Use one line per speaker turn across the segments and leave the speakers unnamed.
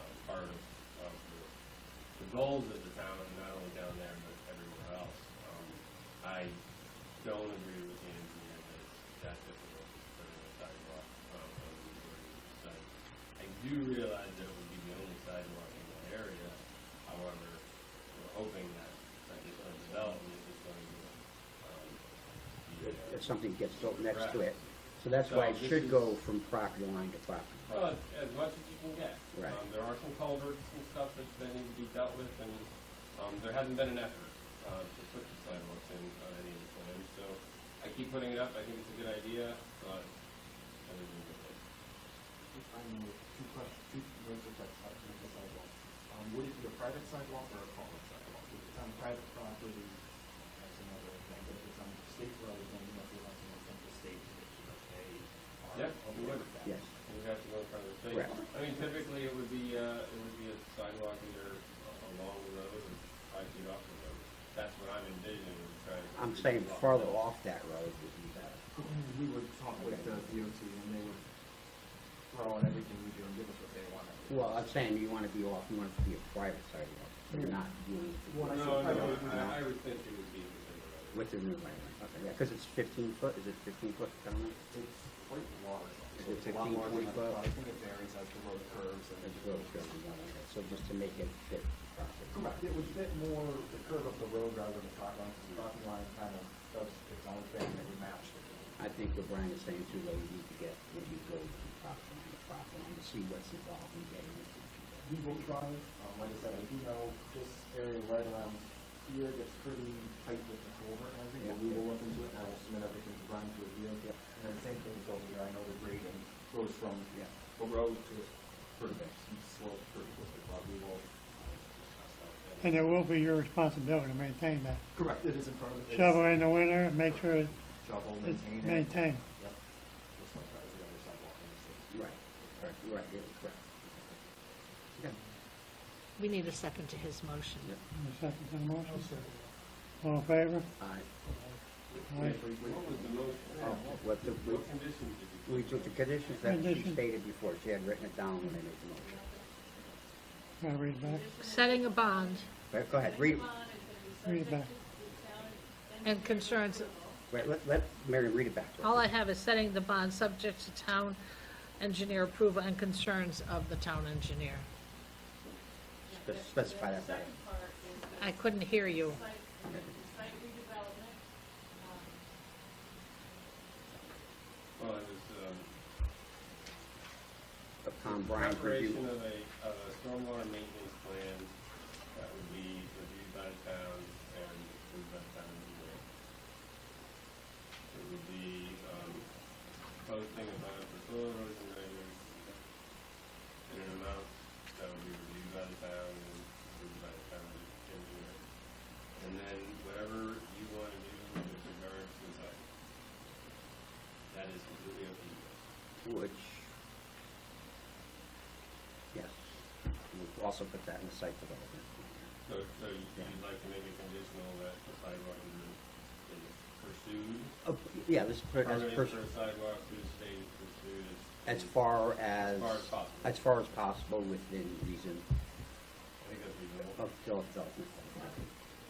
uh, goals of the town, and not only down there, but everywhere else. Um, I don't agree with the engineer that it's that difficult to put in a sidewalk, um, on the majority of the site. I do realize that it would be the only sidewalk in that area, however, we're hoping that, that this development is going to, um, be,
if,
uh,
if something gets built next to it. So that's why it
So this
should
is-
go from property line to property.
Well, as as much as you can get.
Right.
Um, there are some culverts and stuff that, that need to be dealt with, and, um, there hasn't been an effort, uh, to put the sidewalks in on any of the plans, so I keep putting it up, I think it's a good idea, but I don't think it's
I mean, with two questions, two ways of that side, of the sidewalk. Um, would it be a private sidewalk or a public sidewalk? If it's on private property, that's another thing, but if it's on state road, then you might be allowed to know from the state that it's okay. or
Yep,
okay
we would.
with that.
Yes.
We'd have to go in front of the state.
Correct.
I mean, typically, it would be, uh, it would be a sidewalk either a- along the road or five feet off the road. That's what I'm envisioning, is trying to.
I'm saying farther off that road would be better.
We would talk with the DOT and they would throw in everything we do and give us what they want.
Well, I'm saying you want to be off, you want it to be a private sidewalk, so you're not doing
No,
Well, I
no,
said-
I, I would think it would be within the road.
within the right of way. Okay, yeah, because it's fifteen foot, is it fifteen foot, Dominic?
It's quite large.
Is
It's
it
a lot
15,
larger than I
25?
thought. I think it varies as the road curves and.
That's what it's gonna be done like that. So just to make it fit properly.
Correct, it would fit more the curve of the road rather than the property line, 'cause the property line kind of does its own thing, and it would match the road.
I think what Brian is saying too, though, you need to get, when you go from property line to property line, to see what's involved in getting it.
We will try, um, like I said, I do know this area right around here gets pretty tight with the culvert and everything, but we will look into it, and I will submit everything to Brian to review.
Yeah.
And then same thing goes here, I know the grading goes from
Yeah.
the road to the curve, steep slope, curve, but we will. uh, discuss that.
And it will be your responsibility to maintain that.
Correct, it is in front of the.
Shovel in the winter, and make sure
Shovel,
it's
maintain it.
maintained.
Yep. Just like that, the other sidewalk in the city.
Right, right, right, yeah, correct. Okay.
We need a second to his motion.
Yeah.
Any second to the motion? All in favor?
All right.
Aye.
What was the most,
What the, we-
what conditions did you?
we took the conditions that she
Condition.
stated before, she had written it down when I made the motion.
Gotta read it back.
Setting a bond
But go ahead, read,
Read it back.
and concerns,
wait, let, let Mary read it back to us.
all I have is setting the bond subject to town engineer approval and concerns of the town engineer.
Spe- Specify that better.
I couldn't hear you.
Well, it was, um,
Upon Brian's
preparation
review,
of a, of a stormwater maintenance plan that would be reviewed by the town and approved by the town engineer. It would be, um, posting a bond for soil erosion measures in an amount that would be reviewed by the town and approved by the town engineer. And then whatever you want to do with regards to that, that is completely up to you.
which, yes, we'll also put that in the site development.
So, so you- you'd like to make it conditional that the sidewalk is is pursued?
Oh, yeah, this, per- as,
Permitting
per-
for a sidewalk through the state is pursued as.
as far as,
As far as possible.
as far as possible within reason
I think that's reasonable.
of Philadelphia.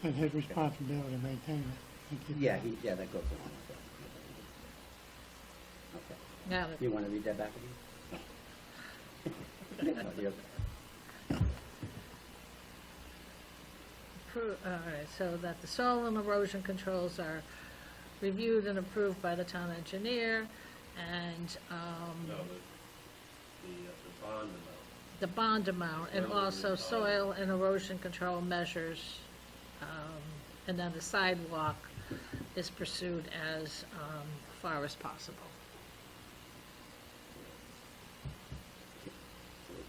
It's his responsibility to maintain it. and keep it.
Yeah, he, yeah, that goes along with that. Okay.
Now,
You want to read that back again? No, you're-
appro- all right, so that the soil and erosion controls are reviewed and approved by the town engineer, and,
No,
um,
the, the, uh, the bond amount.
the bond amount, and
Soil
also
erosion.
soil and erosion control measures. um, And then the sidewalk is pursued as um, far as possible.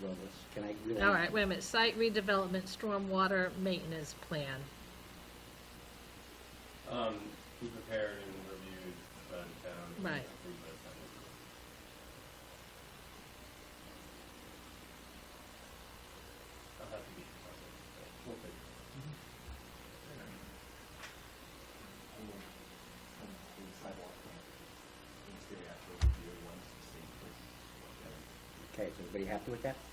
well, let's- Can I really?
All right, wait a minute, site redevelopment, stormwater maintenance plan.
Um, be prepared and reviewed by the town. and
Right.
approved by the town engineer. I'll have to be. We'll figure it out.
And then, and the sidewalk, uh, in theory, after review, once the state puts, uh,
Okay, is everybody happy with that?